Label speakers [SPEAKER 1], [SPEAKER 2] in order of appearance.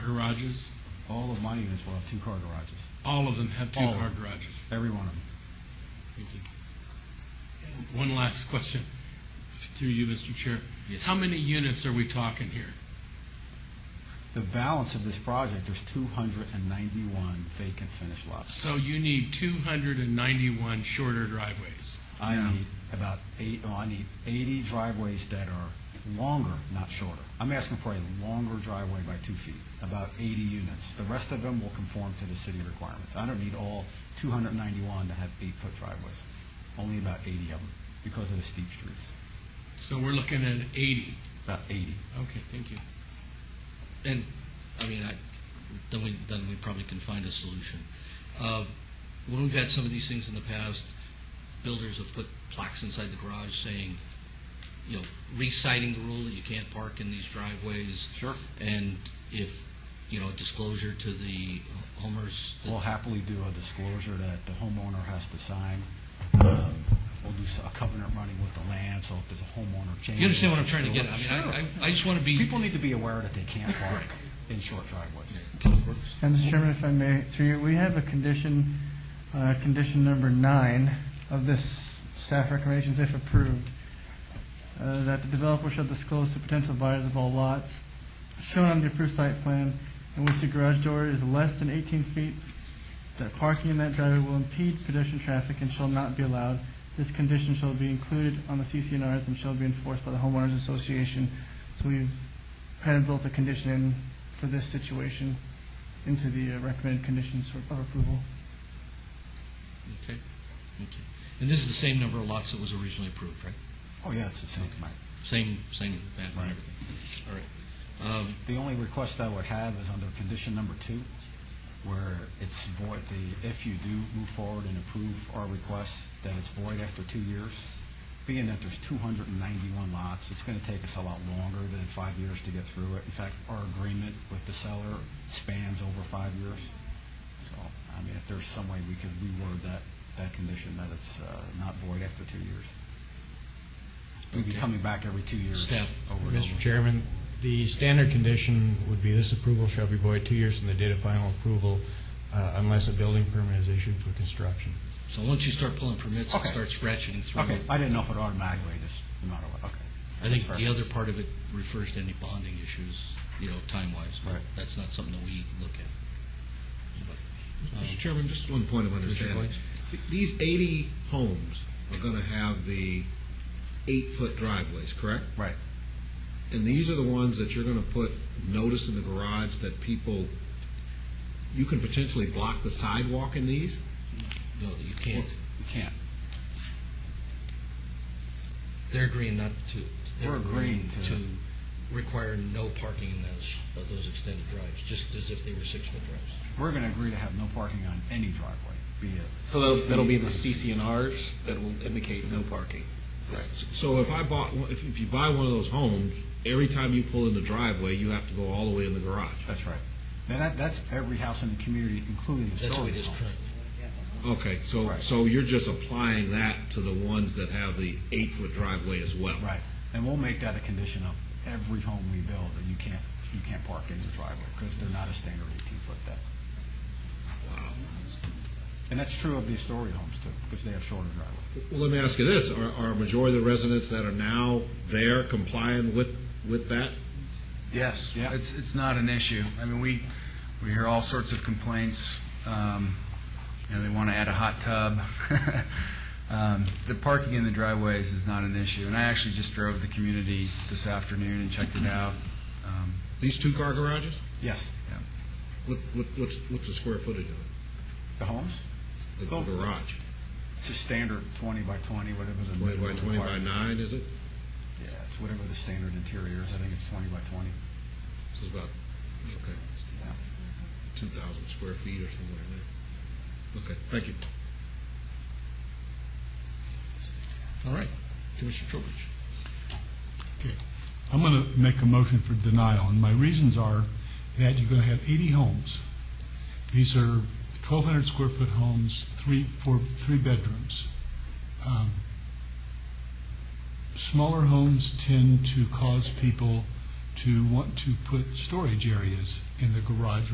[SPEAKER 1] garages?
[SPEAKER 2] All of my units will have two-car garages,
[SPEAKER 1] All of them have
[SPEAKER 2] All of
[SPEAKER 1] two-car
[SPEAKER 2] them.
[SPEAKER 1] garages.
[SPEAKER 2] every one of them.
[SPEAKER 1] Thank you. And One last question, through you, Mr. Chair. How many units are we talking here?
[SPEAKER 2] The balance of this project, there's 291 vacant finished lots.
[SPEAKER 1] So you need 291 shorter driveways.
[SPEAKER 2] I
[SPEAKER 3] Yeah.
[SPEAKER 2] need about eight, oh, I need 80 driveways that are longer, not shorter. I'm asking for a longer driveway by two feet, about 80 units. The rest of them will conform to the city requirements. I don't need all 291 to have eight-foot driveways, only about 80 of them because of the steep streets,
[SPEAKER 1] So we're looking at 80.
[SPEAKER 2] about 80.
[SPEAKER 1] Okay, thank you.
[SPEAKER 4] I mean, I, then we, then we probably can find a solution. Uh, When we've had some of these things in the past, builders have put plaques inside the garage saying, you know, reciting the rule that you can't park in these driveways,
[SPEAKER 2] Sure.
[SPEAKER 4] and if, you know, disclosure to the homers. that-
[SPEAKER 2] We'll happily do a disclosure that the homeowner has to sign. Um, We'll do so- a covenant running with the land, so if there's a homeowner change.
[SPEAKER 4] You understand what I'm trying to get at? I mean, I- I, I just want to be.
[SPEAKER 2] People need to be aware that they can't park in short driveways.
[SPEAKER 4] Public Works.
[SPEAKER 5] And Mr. Chairman, if I may, through you, we have a condition, uh, condition number nine of this staff recommendations, if approved, uh, that the developer shall disclose to potential buyers of all lots shown on the approved site plan in which the garage door is less than 18 feet, that parking in that driveway will impede pedestrian traffic and shall not be allowed. This condition shall be included on the CCNRs and shall be enforced by the homeowners association. So we've kind of built a condition in for this situation into the uh, recommended conditions for- of approval.
[SPEAKER 4] Okay, okay. And this is the same number of lots that was originally approved, right?
[SPEAKER 2] Oh, yeah, it's the same.
[SPEAKER 4] Same, same pattern,
[SPEAKER 2] Right.
[SPEAKER 4] and everything. All right. Um,
[SPEAKER 2] The only request I would have is under condition number two, where it's void, the, if you do move forward and approve our request, that it's void after two years. Being that there's 291 lots, it's going to take us a lot longer than five years to get through it. In fact, our agreement with the seller spans over five years. So, I mean, if there's some way we could reword that, that condition, that it's uh, not void after two years. We'd be
[SPEAKER 4] Okay.
[SPEAKER 2] coming back every two years.
[SPEAKER 4] Staff.
[SPEAKER 2] over and over.
[SPEAKER 6] Mr. Chairman, the standard condition would be this approval shall be void two years from the date of final approval uh, unless a building permit is issued for construction.
[SPEAKER 4] So once you start pulling permits and
[SPEAKER 2] Okay.
[SPEAKER 4] start ratcheting through,
[SPEAKER 2] Okay,
[SPEAKER 4] it,
[SPEAKER 2] I didn't know if it automatically, just no matter what, okay.
[SPEAKER 4] I think
[SPEAKER 2] That's
[SPEAKER 4] the
[SPEAKER 2] fair.
[SPEAKER 4] other part of it refers to any bonding issues, you know, time-wise, but
[SPEAKER 2] Right.
[SPEAKER 4] that's not something that we look at. uh,
[SPEAKER 7] Mr. Chairman, just one point of understanding. Th- These 80 homes are going to have the eight-foot driveways, correct?
[SPEAKER 2] Right.
[SPEAKER 7] And these are the ones that you're going to put notice in the garage that people, you can potentially block the sidewalk in these?
[SPEAKER 4] No, you can't.
[SPEAKER 2] You can't,
[SPEAKER 4] They're agreeing not to. they're
[SPEAKER 2] We're agreeing to-
[SPEAKER 4] require no parking in those, of those extended drives, just as if they were six-foot drives.
[SPEAKER 2] we're going to agree to have no parking on any driveway, be it.
[SPEAKER 8] So those, that'll be the CCNRs that will indicate no parking.
[SPEAKER 7] So if I bought, one- if if you buy one of those homes, every time you pull in the driveway, you have to go all the way in the garage?
[SPEAKER 2] That's right. Then that, that's every house in the community, including the
[SPEAKER 4] That's what it
[SPEAKER 2] storage
[SPEAKER 4] is
[SPEAKER 2] homes.
[SPEAKER 4] currently.
[SPEAKER 7] Okay, so,
[SPEAKER 2] Right.
[SPEAKER 7] so you're just applying that to the ones that have the eight-foot driveway as well?
[SPEAKER 2] Right, and we'll make that a condition of every home we build, that you can't, you can't park in the driveway, because they're not a standard eighteen-foot depth. And that's true of the Astoria homes too, because they have shorter driveways.
[SPEAKER 7] Well, let me ask you this, are, are a majority of the residents that are now there complying with, with that?
[SPEAKER 3] Yes.
[SPEAKER 2] Yeah.
[SPEAKER 3] It's, it's not an issue. I mean, we, we hear all sorts of complaints. Um, You know, they want to add a hot tub. Um, The parking in the driveways is not an issue. And I actually just drove the community this afternoon and checked it out. Um,
[SPEAKER 7] These two-car garages?
[SPEAKER 2] Yes,
[SPEAKER 7] What, what, what's, what's the square footage of
[SPEAKER 2] the homes,
[SPEAKER 7] it, the
[SPEAKER 2] Oh.
[SPEAKER 7] garage?
[SPEAKER 2] it's a standard twenty by twenty, whatever the.
[SPEAKER 7] Twenty by
[SPEAKER 2] minimum
[SPEAKER 7] twenty by
[SPEAKER 2] requirement is.
[SPEAKER 7] nine, is it?
[SPEAKER 2] Yeah, it's whatever the standard interior is, I think it's twenty by twenty.
[SPEAKER 7] This is about, okay,
[SPEAKER 2] Yeah.
[SPEAKER 7] two thousand square feet or somewhere in there. Okay, thank you.
[SPEAKER 4] All right. Commissioner Trowbridge.
[SPEAKER 9] I'm going to make a motion for denial, and my reasons are that you're going to have 80 homes. These are 1,200 square foot homes, three, four, three bedrooms. Um, Smaller homes tend to cause people to want to put storage areas in the garage